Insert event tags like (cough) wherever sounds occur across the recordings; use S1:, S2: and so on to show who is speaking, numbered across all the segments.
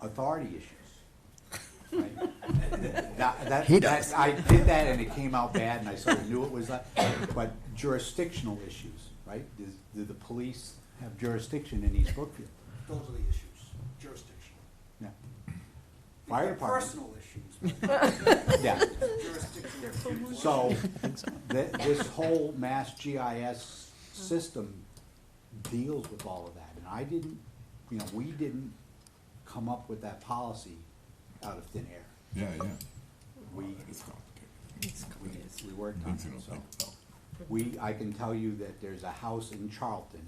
S1: authority issues. right? That- that-
S2: He
S1: that-
S2: does.
S1: I did that and it came out bad and I sort of knew it was that, but jurisdictional issues, right? Does- Do the police have jurisdiction in East Brookfield?
S3: Those are the issues, jurisdiction.
S1: No. Fire
S3: They're
S1: department,
S3: Personal issues. but (laughs)
S1: yeah.
S3: Jurisdictional issues.
S1: So, th- this whole mass GIS system deals with all of that, and I didn't, you know, we didn't come up with that policy out of thin air.
S4: Yeah, yeah.
S1: We,
S4: It's complicated.
S1: we, we worked on
S4: Things you
S1: it,
S4: don't
S1: so.
S4: think about.
S1: We, I can tell you that there's a house in Charlton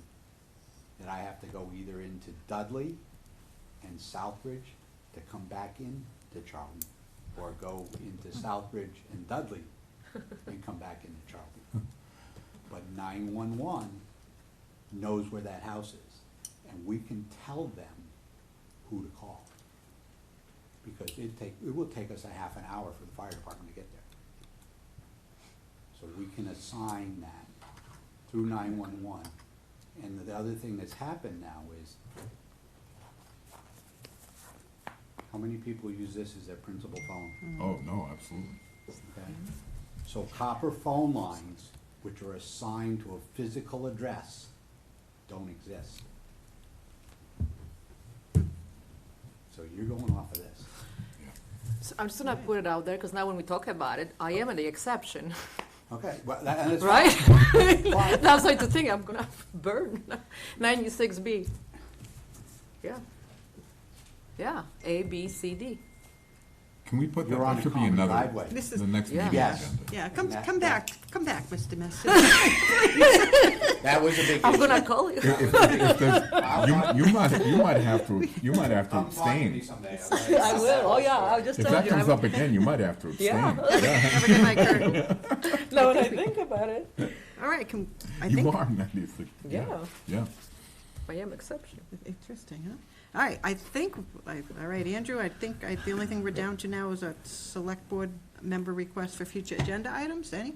S1: that I have to go either into Dudley and Southbridge to come back in to Charlton, or go into Southbridge and Dudley and come back into Charlton. But nine-one-one knows where that house is, and we can tell them who to call. Because it take, it will take us a half an hour for the fire department to get there. So we can assign that through nine-one-one. And the other thing that's happened now is, how many people use this as their principal phone?
S4: Oh, no, absolutely.
S1: Okay? So copper phone lines, which are assigned to a physical address, don't exist. So you're going off of this.
S4: Yeah.
S5: So I'm just gonna put it out there, because now when we talk about it, I am the exception,
S1: Okay, well, that, and it's.
S5: (laughs) right?
S1: Fine.
S5: (laughs) That's why to think I'm gonna (laughs) burn ninety-six B. Yeah. Yeah, A, B, C, D.
S4: Can we put that,
S1: You're on
S4: that
S1: a
S4: should be
S1: common
S4: another,
S1: driveway.
S6: This is,
S4: the next
S5: Yeah.
S4: meeting
S1: Yes.
S4: agenda.
S6: yeah, come,
S1: That-
S6: come
S1: that-
S6: back, come back, Mr. Messi.
S1: That was a big
S5: I'm
S1: issue.
S5: gonna call you.
S4: If- if-
S1: (laughs)
S4: if there's- You, you might, you might have to, you might have to
S1: Come talk to me
S4: abstain.
S1: someday.
S5: (laughs) (laughs) I will, oh yeah, I'll just
S4: If
S5: tell
S4: that
S5: you. I
S4: comes
S5: will-
S4: up again, you might have to
S6: (laughs)
S4: abstain.
S5: Yeah.
S6: Never get my curtain.
S5: Now when I think about it,
S6: All right, come, I
S4: You
S6: think,
S4: are, ninety-six.
S5: Yeah.
S4: Yeah.
S5: I am exception.
S6: interesting, huh? All right, I think, I- all right, Andrew, I think I- the only thing we're down to now is a select board member request for future agenda items, any?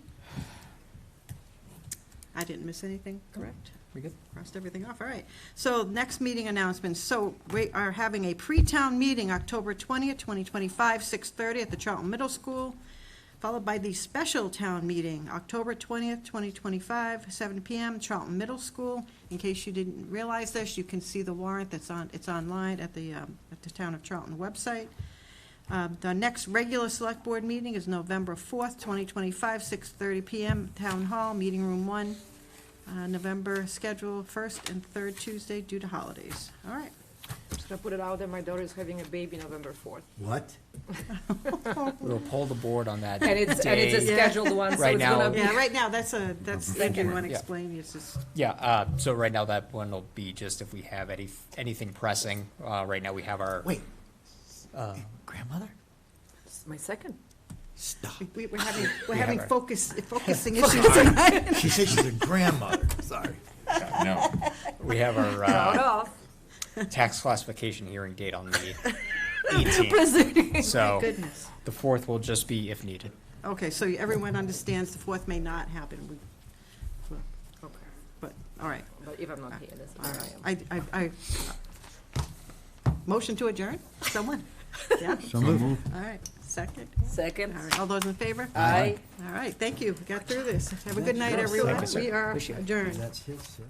S6: I didn't miss anything, correct?
S2: We good?
S6: Crossed everything off, all right. So next meeting announcements. So we are having a pre-town meeting, October 20th, 2025, 6:30 at the Charlton Middle School, followed by the special town meeting, October 20th, 2025, 7 PM, Charlton Middle School. In case you didn't realize this, you can see the warrant that's on, it's online at the, um, at the Town of Charlton website. Um, The next regular Select Board meeting is November 4th, 2025, 6:30 PM, Town Hall, Meeting Room 1. Uh, November schedule first and third Tuesday due to holidays. All right.
S5: Just gonna put it out there, my daughter is having a baby November fourth.
S2: What? We'll pull the board on that
S5: And it's, and it's a
S2: day.
S5: scheduled one, so
S2: Right
S5: it's gonna
S2: now-
S5: be.
S6: Yeah, right now, that's a, that's,
S5: Thank
S6: if
S5: you.
S6: you want to
S2: Yeah.
S6: explain, it's just,
S2: Yeah, uh, so right now that one will be just if we have any, anything pressing. Uh, right now we have our.
S7: Wait,
S2: Uh,
S7: grandmother?
S5: It's My second.
S7: Stop.
S6: we- we're (laughs) having, we're
S2: Yeah,
S6: having (laughs)
S2: right.
S6: focus, focusing issues tonight.
S7: She said she's a grandmother. Sorry.
S4: No,
S2: we have our,
S5: Proud (laughs)
S2: uh,
S5: of.
S2: tax classification hearing date on the eighteenth. So
S6: Goodness.
S2: the fourth will just be if needed.
S6: Okay, so everyone understands the fourth may not happen, We- well,
S5: Okay.
S6: but, all right,
S5: But if I'm
S2: Uh.
S5: not here, that's
S6: all
S5: where
S6: right.
S5: I am.
S6: I, I, I, motion to adjourn? Someone? Yeah,
S4: so moved.
S6: all right, second. All
S5: Second.
S6: right, all those in favor?
S5: Aye.
S6: All right, thank you, We got through this. Have a good night, everyone.
S2: you, sir.
S6: We are
S2: Appreciate it.
S6: adjourned.
S7: That's his, sir.